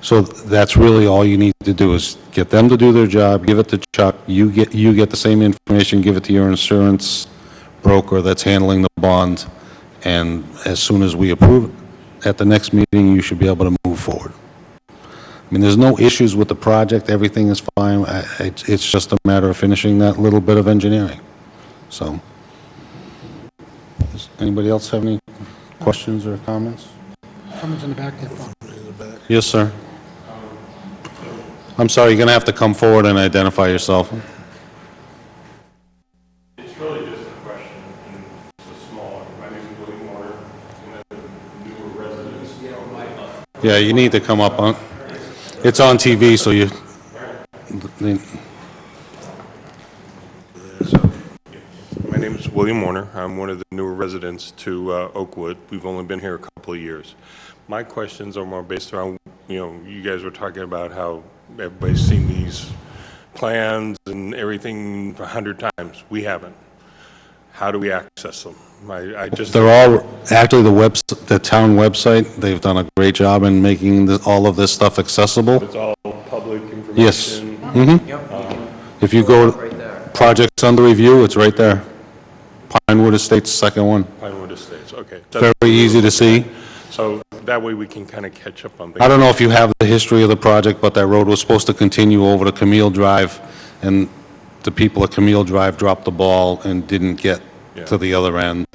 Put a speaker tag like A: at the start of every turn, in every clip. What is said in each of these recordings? A: So that's really all you need to do is get them to do their job, give it to Chuck, you get, you get the same information, give it to your insurance broker that's handling the bond, and as soon as we approve it, at the next meeting, you should be able to move forward. I mean, there's no issues with the project, everything is fine, I- it's, it's just a matter of finishing that little bit of engineering, so. Does anybody else have any questions or comments?
B: Someone's in the back there.
A: Yes, sir. I'm sorry, you're going to have to come forward and identify yourself.
C: It's really just a question, and it's a small, one. my name is William Warner, and I'm a newer resident.
A: Yeah, you need to come up on, it's on TV, so you,
C: My name is William Warner, I'm one of the newer residents to uh, Oakwood, we've only been here a couple of years. My questions are more based around, you know, you guys were talking about how everybody's seen these plans and everything a hundred times, we haven't. How do we access them? I, I just,
A: they're all, actually, the webs, the town website, they've done a great job in making the- all of this stuff accessible.
C: it's all public information.
A: Yes. Mhm. If you go to projects under review, it's right there. Pinewood Estates, second one.
C: Pinewood Estates, okay.
A: Very easy to see.
C: So that way we can kind of catch up on things.
A: I don't know if you have the history of the project, but that road was supposed to continue over to Camille Drive, and the people at Camille Drive dropped the ball and didn't get to
C: Yeah.
A: the other end,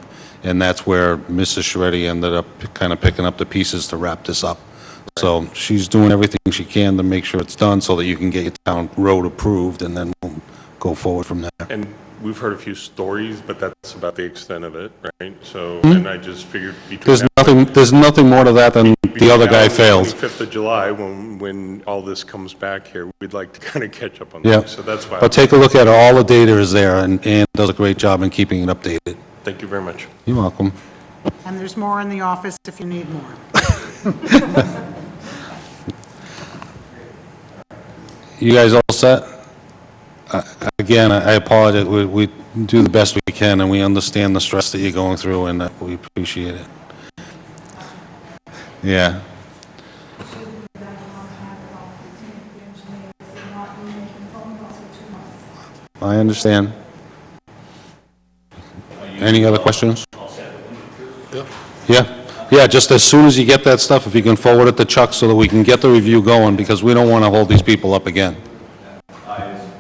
A: and that's where Mrs. Shreddy ended up kind of picking up the pieces to wrap this up. So she's doing everything she can to make sure it's done so that you can get your town road approved, and then we'll go forward from there.
C: And we've heard a few stories, but that's about the extent of it, right? So,
A: Hmm?
C: and I just figured between
A: There's nothing, there's nothing more to that than the other guy failed.
C: 5th of July, when, when all this comes back here, we'd like to kind of catch up on
A: Yeah.
C: that. So that's why,
A: But take a look at it, all the data is there, and Ann does a great job in keeping it updated.
C: thank you very much.
A: You're welcome.
B: And there's more in the office if you need more.
A: You guys all set? Uh, Again, I I apologize, we, we do the best we can, and we understand the stress that you're going through, and uh, we appreciate it. Yeah, I understand. Any other questions? Yeah, yeah, just as soon as you get that stuff, if you can forward it to Chuck so that we can get the review going, because we don't want to hold these people up again.
D: I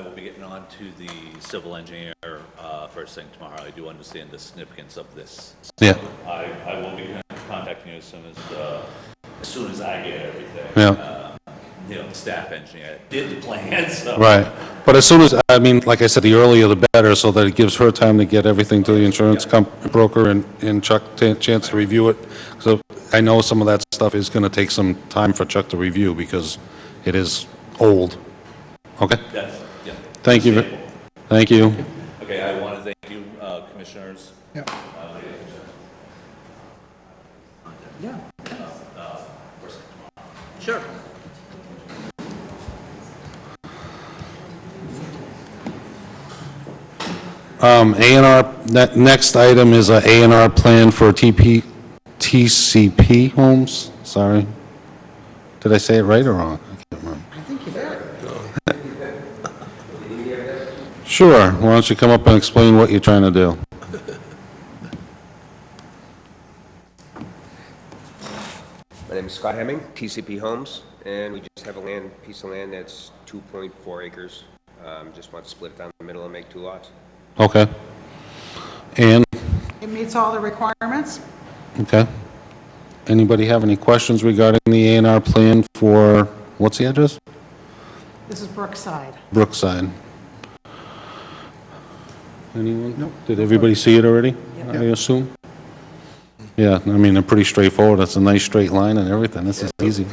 D: will be getting on to the civil engineer uh, first thing tomorrow. I do understand the significance of this.
A: Yeah,
D: I, I will be contacting you as soon as, uh, as soon as I get everything.
A: yeah.
D: You know, the staff engineer did the plan, so.
A: Right. But as soon as, I mean, like I said, the earlier the better, so that it gives her time to get everything to the insurance comp, broker and, and Chuck a chance to review it. So I know some of that stuff is gonna take some time for Chuck to review because it is old. Okay?
D: Yes, yeah.
A: Thank you. ve- Thank you.
D: Okay, I want to thank you, uh, commissioners.
B: Yep. Yeah.
D: Sure.
A: Um, A and R, that next item is a A and R plan for TP, TCP homes, sorry. Did I say it right or wrong? I can't remember.
B: I think you did.
A: Sure, why don't you come up and explain what you're trying to do?
E: My name is Scott Hemming, TCP Homes, and we just have a land, piece of land that's 2.4 acres. Um, Just want to split it down the middle and make two lots.
A: Okay. And,
B: It meets all the requirements.
A: okay. Anybody have any questions regarding the A and R plan for, what's the address?
B: This is Brookside.
A: Brookside. Anyone? Nope. Did everybody see it already, I assume? Yeah, I mean, they're pretty straightforward. It's a nice straight line and everything. This is easy.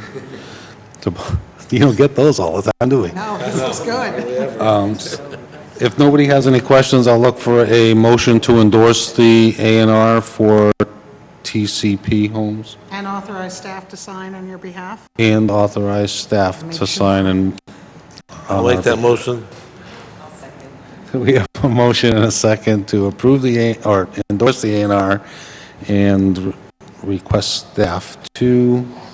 A: To bu- You don't get those all the time, do we?
B: No, this is good.
A: If nobody has any questions, I'll look for a motion to endorse the A and R for TCP Homes
B: And authorize staff to sign on your behalf.
A: and authorize staff to sign and uh,
F: I'll make that motion.
A: We have a motion and a second to approve the, A- or endorse the A and R and request staff to